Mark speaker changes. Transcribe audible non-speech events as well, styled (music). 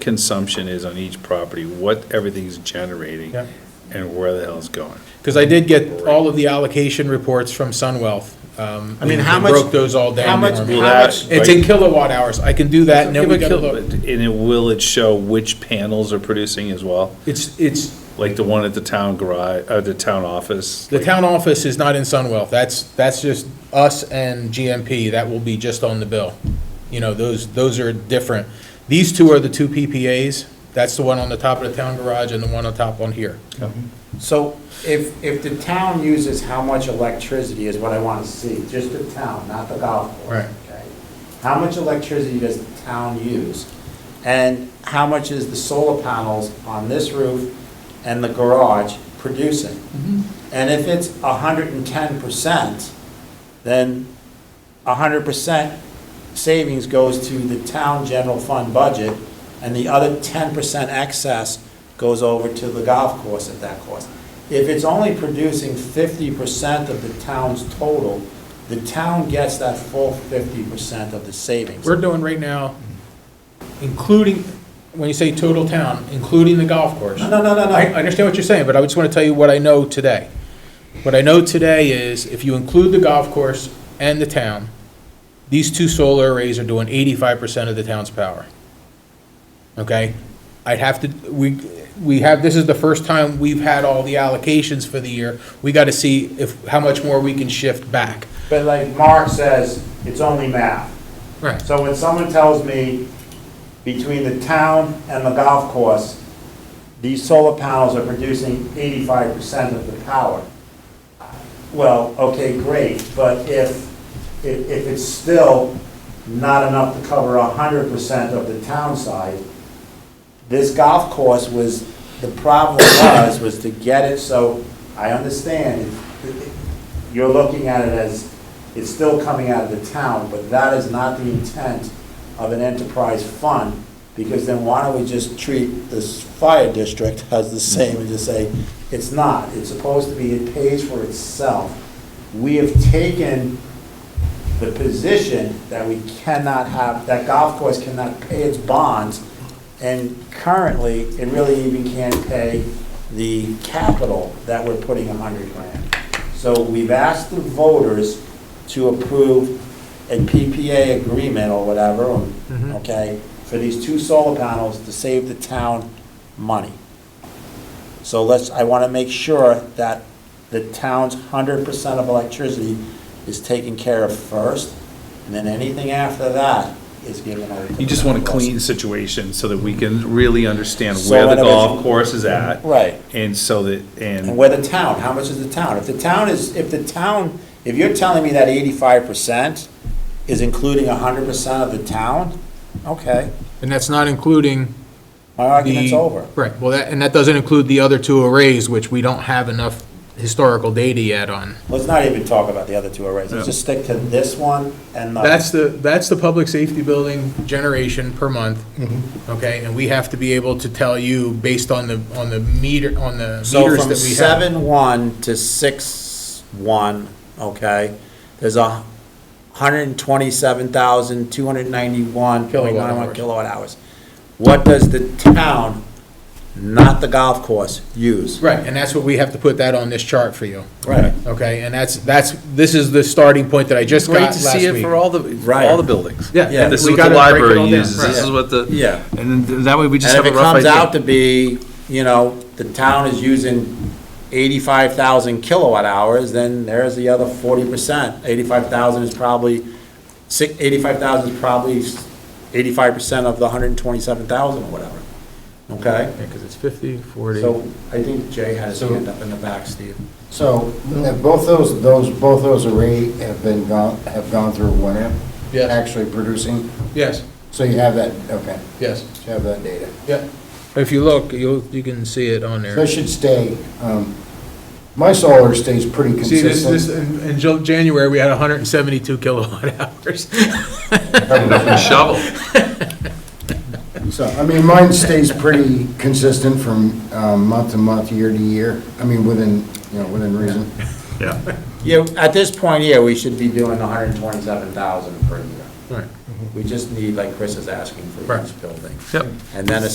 Speaker 1: consumption is on each property, what everything's generating,
Speaker 2: Yeah.
Speaker 1: and where the hell it's going.
Speaker 2: Because I did get all of the allocation reports from SunWealth. um,
Speaker 3: I mean,
Speaker 2: and-
Speaker 3: how
Speaker 2: and
Speaker 3: much-
Speaker 2: Broke those all down.
Speaker 3: how much-
Speaker 2: for me.
Speaker 1: Will that-
Speaker 2: It's in kilowatt hours. I can do that and then we gotta look.
Speaker 1: And it, will it show which panels are producing as well?
Speaker 2: It's, it's,
Speaker 1: Like the one at the town garage, uh, the town office?
Speaker 2: the town office is not in Sunwealth. That's, that's just us and GMP. That will be just on the bill. You know, those, those are different. These two are the two PPAs. That's the one on the top of the town garage and the one on top on here.
Speaker 3: So if, if the town uses how much electricity is what I want to see, just the town, not the golf course.
Speaker 2: Right.
Speaker 3: okay? How much electricity does the town use? And how much is the solar panels on this roof and the garage producing?
Speaker 2: Mm-hmm.
Speaker 3: And if it's hundred and ten percent, then hundred percent savings goes to the town general fund budget, and the other ten percent excess goes over to the golf course at that cost. If it's only producing fifty percent of the town's total, the town gets that full fifty percent of the savings.
Speaker 2: We're doing right now, including, when you say total town, including the golf course.
Speaker 3: No, no, no, no,
Speaker 2: I I
Speaker 3: no.
Speaker 2: understand what you're saying, but I just want to tell you what I know today. What I know today is if you include the golf course and the town, these two solar arrays are doing eighty-five percent of the town's power. Okay? I'd have to, we, we have, this is the first time we've had all the allocations for the year. We got to see if, how much more we can shift back.
Speaker 3: But like Mark says, it's only math.
Speaker 2: Right.
Speaker 3: So when someone tells me between the town and the golf course, these solar panels are producing eighty-five percent of the power. Well, okay, great, but if, if, if it's still not enough to cover hundred percent of the town side, this golf course was, the problem was, was to get it, so I understand. it- it- You're looking at it as, it's still coming out of the town, but that is not the intent of an enterprise fund, because then why don't we just treat this fire district as the same and just say, it's not, it's supposed to be, it pays for itself. We have taken the position that we cannot have, that golf course cannot pay its bonds, and currently, it really even can't pay the capital that we're putting a hundred grand. So we've asked the voters to approve a PPA agreement or whatever, okay, for these two solar panels to save the town money. So let's, I want to make sure that the town's hundred percent of electricity is taken care of first, and then anything after that is given over to the
Speaker 1: You just want a
Speaker 3: golf course.
Speaker 1: clean situation so that we can really understand
Speaker 3: So
Speaker 1: where the
Speaker 3: that it
Speaker 1: golf
Speaker 3: is-
Speaker 1: course is at.
Speaker 3: Right.
Speaker 1: And so that,
Speaker 3: And
Speaker 1: and,
Speaker 3: where the town, how much is the town? If the town is, if the town, if you're telling me that eighty-five percent is including hundred percent of the town, okay,
Speaker 2: And that's not including
Speaker 3: my argument's
Speaker 2: the-
Speaker 3: over.
Speaker 2: Right, well, that, and that doesn't include the other two arrays, which we don't have enough historical data yet on.
Speaker 3: Let's not even talk about the other two arrays, let's
Speaker 1: Yeah.
Speaker 3: just stick to this one and the.
Speaker 2: That's the, that's the public safety building generation per month, okay? And we have to be able to tell you based on the, on the meter, on the meters that
Speaker 3: So
Speaker 2: we have.
Speaker 3: from seven one to six one, okay, there's a hundred and twenty-seven thousand, two hundred and ninety-one point nine one
Speaker 2: Kilowatt hours.
Speaker 3: kilowatt hours. What does the town, not the golf course, use?
Speaker 2: Right, and that's what we have to put that on this chart for you,
Speaker 3: Right.
Speaker 2: okay? And that's, that's, this is the starting point that I just got
Speaker 1: great to
Speaker 2: last week.
Speaker 1: see it for all the, for
Speaker 3: Right.
Speaker 1: all the buildings.
Speaker 2: Yeah.
Speaker 3: Yeah.
Speaker 1: This is
Speaker 2: we
Speaker 1: what the
Speaker 2: gotta break it all
Speaker 1: library
Speaker 2: down,
Speaker 1: uses,
Speaker 2: right.
Speaker 1: this is what the.
Speaker 3: Yeah.
Speaker 1: And then that way we just have
Speaker 3: And if
Speaker 1: a
Speaker 3: it
Speaker 1: rough idea.
Speaker 3: comes out to be, you know, the town is using eighty-five thousand kilowatt hours, then there's the other forty percent. Eighty-five thousand is probably, six, eighty-five thousand is probably eighty-five percent of the hundred and twenty-seven thousand or whatever, okay?
Speaker 2: Yeah, 'cause it's fifty, forty.
Speaker 3: So I think Jay had his
Speaker 4: So-
Speaker 3: hand up in the back, Steve.
Speaker 4: So, and both those, those, both those array have been gone, have gone through winter?
Speaker 2: Yes.
Speaker 4: Actually producing,
Speaker 2: Yes,
Speaker 4: so you have that, okay,
Speaker 2: yes,
Speaker 4: so you have that data.
Speaker 2: yeah. If you look, you'll, you can see it on there.
Speaker 4: So it should stay, um, my solar stays pretty
Speaker 2: See, this, this,
Speaker 4: consistent.
Speaker 2: in, in Ja- January, we had hundred and seventy-two kilowatt (laughs)
Speaker 3: (laughs)
Speaker 2: hours.
Speaker 1: Shovel.
Speaker 4: So, I mean, mine stays pretty consistent from, um, month to month, year to year, I mean, within, you know, within reason.
Speaker 1: Yeah.
Speaker 3: Yeah, at this point here, we should be doing hundred and twenty-seven thousand per year.
Speaker 2: Right.
Speaker 3: We just need, like Chris is asking, for each
Speaker 2: Right.
Speaker 3: building.
Speaker 1: Yep.
Speaker 3: And then a